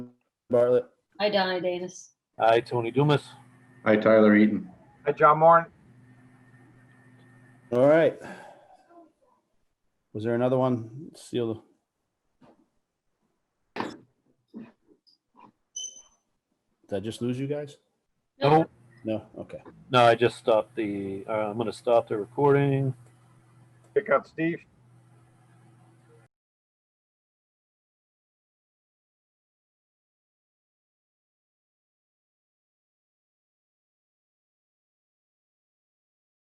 Bartlett. Hi, Donna Danis. Aye, Tony Dumas. Hi, Tyler Eaton. Hi, John Moore. All right. Was there another one? Seal the. Did I just lose you guys? No, No, okay. no, I just stopped the, uh, I'm gonna stop the recording. Pick up Steve.